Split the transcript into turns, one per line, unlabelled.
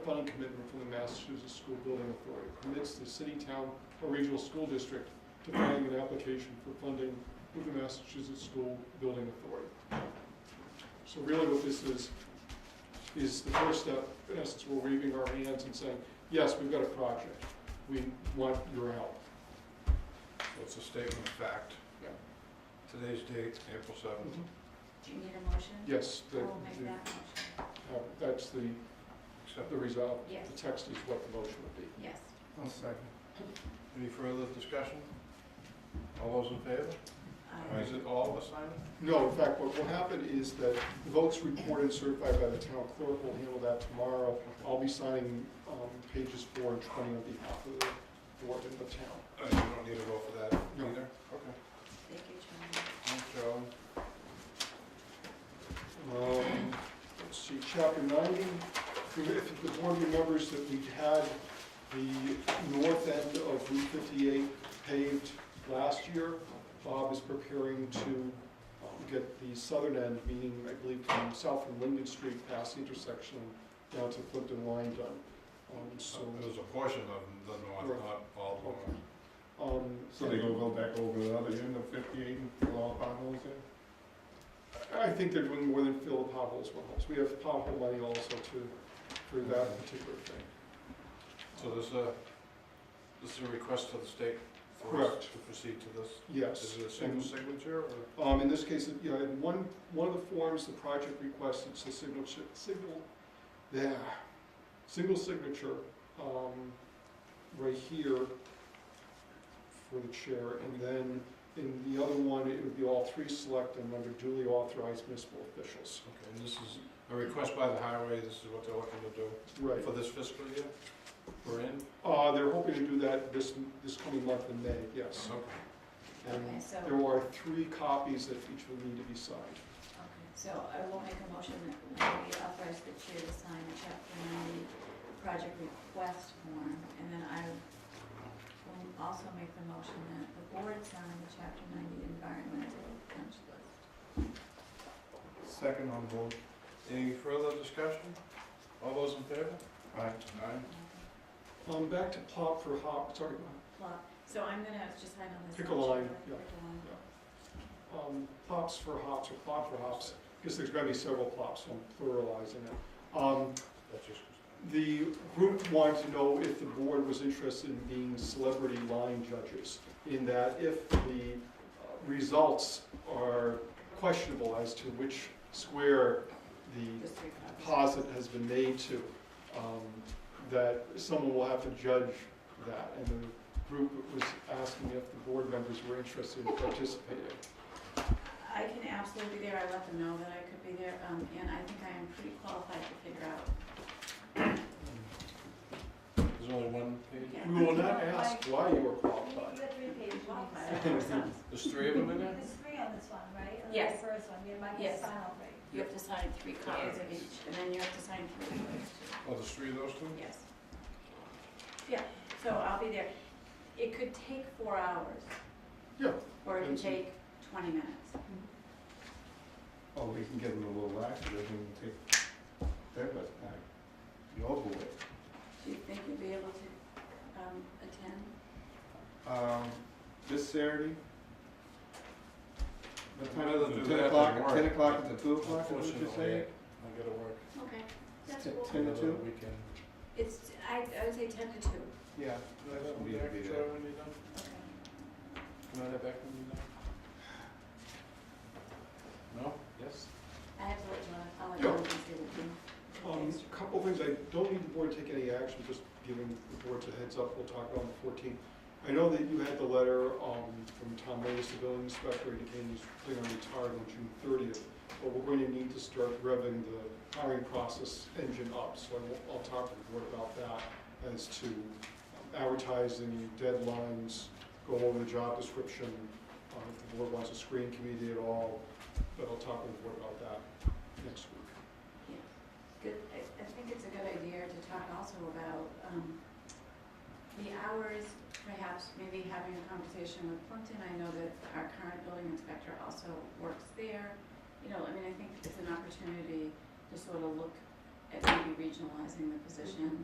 Funding commitment from the Massachusetts School Building Authority commits the city, town, or regional school district to filing an application for funding with the Massachusetts School Building Authority. So really what this is, is the first step, in essence, we're waving our hands and saying, yes, we've got a project, we want your help.
So it's a statement of fact.
Yeah. Mhm.
Today's date, April seventh.
Do you need a motion?
Yes,
I
the-
will make
the-
that motion.
uh, that's the,
Accept.
the resolve.
Yes.
The text is what the motion would be.
Yes.
I'll second.
Any further discussion? All those in favor?
Aye.
Is it all assigned?
No, in fact, what will happen is that the votes reported and certified by the town clerk will handle that tomorrow. I'll be signing um, pages four and 20 on behalf of the board and the town.
Uh, You don't need to vote for that
No.
either? Okay.
Thank you, John.
Thanks, Charlie.
Um, Let's see, chapter 90, if the board remembers that we had the north end of Route 58 paved last year, Bob is preparing to um, get the southern end, meaning, I believe, from south from Linden Street past the intersection down to Plimpton Line done. Um, So
It was a portion of the north, not all the north.
Um,
So they gonna go back over the other end of fifty-eight and fill all potholes in?
I think they're doing more than fill the potholes with holes. We have pothole money also to, for that particular thing.
So there's a, this is a request to the state for us
Correct.
to proceed to this?
Yes. Mm-hmm.
Is it a single signature or?
Um, in this case, you know, in one, one of the forms, the project requests, it's a signal, chi- signal, yeah, single signature, um, right here for the chair, and then in the other one, it would be all three select and under duly authorized municipal officials.
Okay, and this is a request by the highway, this is what they're looking to do
Right,
for this fiscal year? We're in?
uh, they're hoping to do that this, this coming month in May, yes.
Okay.
Okay,
And
so,
there are three copies that each will need to be signed.
okay, so I will make a motion that we authorize the chair to sign the chapter ninety project request form. And then I will also make the motion that the board sign the chapter ninety environmental punch list.
Second on board.
Any further discussion? All those in favor?
Aye.
Aye.
Um, back to Pop for Hop, sorry, go ahead.
Plot. So I'm gonna just sign on this.
Pick a
one,
line,
Charlie.
yeah.
Pick a line.
um, plops for hops or plop for hops, because there's gonna be several plops, so I'm pluralizing it. Um,
That's just.
the group wanted to know if the board was interested in being celebrity line judges, in that if the uh, results are questionable as to which square the
Just three copies.
deposit has been made to, um, that someone will have to judge that. And the group was asking if the board members were interested in participating.
I can absolutely be there, I let them know that I could be there, um, and I think I am pretty qualified to figure out.
There's only one page?
We will not ask why you were qualified.
The three pages,
qualified, of course, um,
There's three of them in there?
there's three on this one, right? And
Yes.
The first one, you might
Yes.
have signed already.
You have to sign three copies of each, and then you have to sign three of those too.
Oh, there's three of those two?
Yes. Yeah, so I'll be there. It could take four hours.
Yeah.
Or it could
That's it.
take twenty minutes.
Oh, we can give them a little lax, they can take their best back. Your board.
Do you think you'd be able to, um, attend?
Um, this Saturday? What time
I'd rather
is it?
do
Ten
that
o'clock-
than work.
Ten o'clock to two o'clock, is what you're
Unfortunately,
saying?
I gotta work.
Okay. That's
Ten-
cool.
Ten to
another
two?
Weekend.
It's, I, I would say ten to two.
Yeah.
Can I have
We'll be-
that
be
back,
there.
Charlie, when you're done?
Okay.
Can I have that back when you're done? No? Yes?
I have to let you know, I'll let you know. when you
Um,
see
a couple things, I don't need the board to take any action, just giving the board a heads up, we'll talk about on the 14th. I know that you had the letter um, from Tom Lewis, the building inspector, indicating he's planning on retiring on June 30th, but we're going to need to start revving the hiring process engine up, so I will- I'll talk to the board about that as to um, advertising, deadlines, go over the job description, uh, if the board wants a screening committee at all, but I'll talk with the board about that next week.
Good, I, I think it's a good idea to talk also about, um, the hours, perhaps maybe having a conversation with Plimpton. I know that our current building inspector also works there. You know, I mean, I think it's an opportunity to sort of look it may be regionalizing the position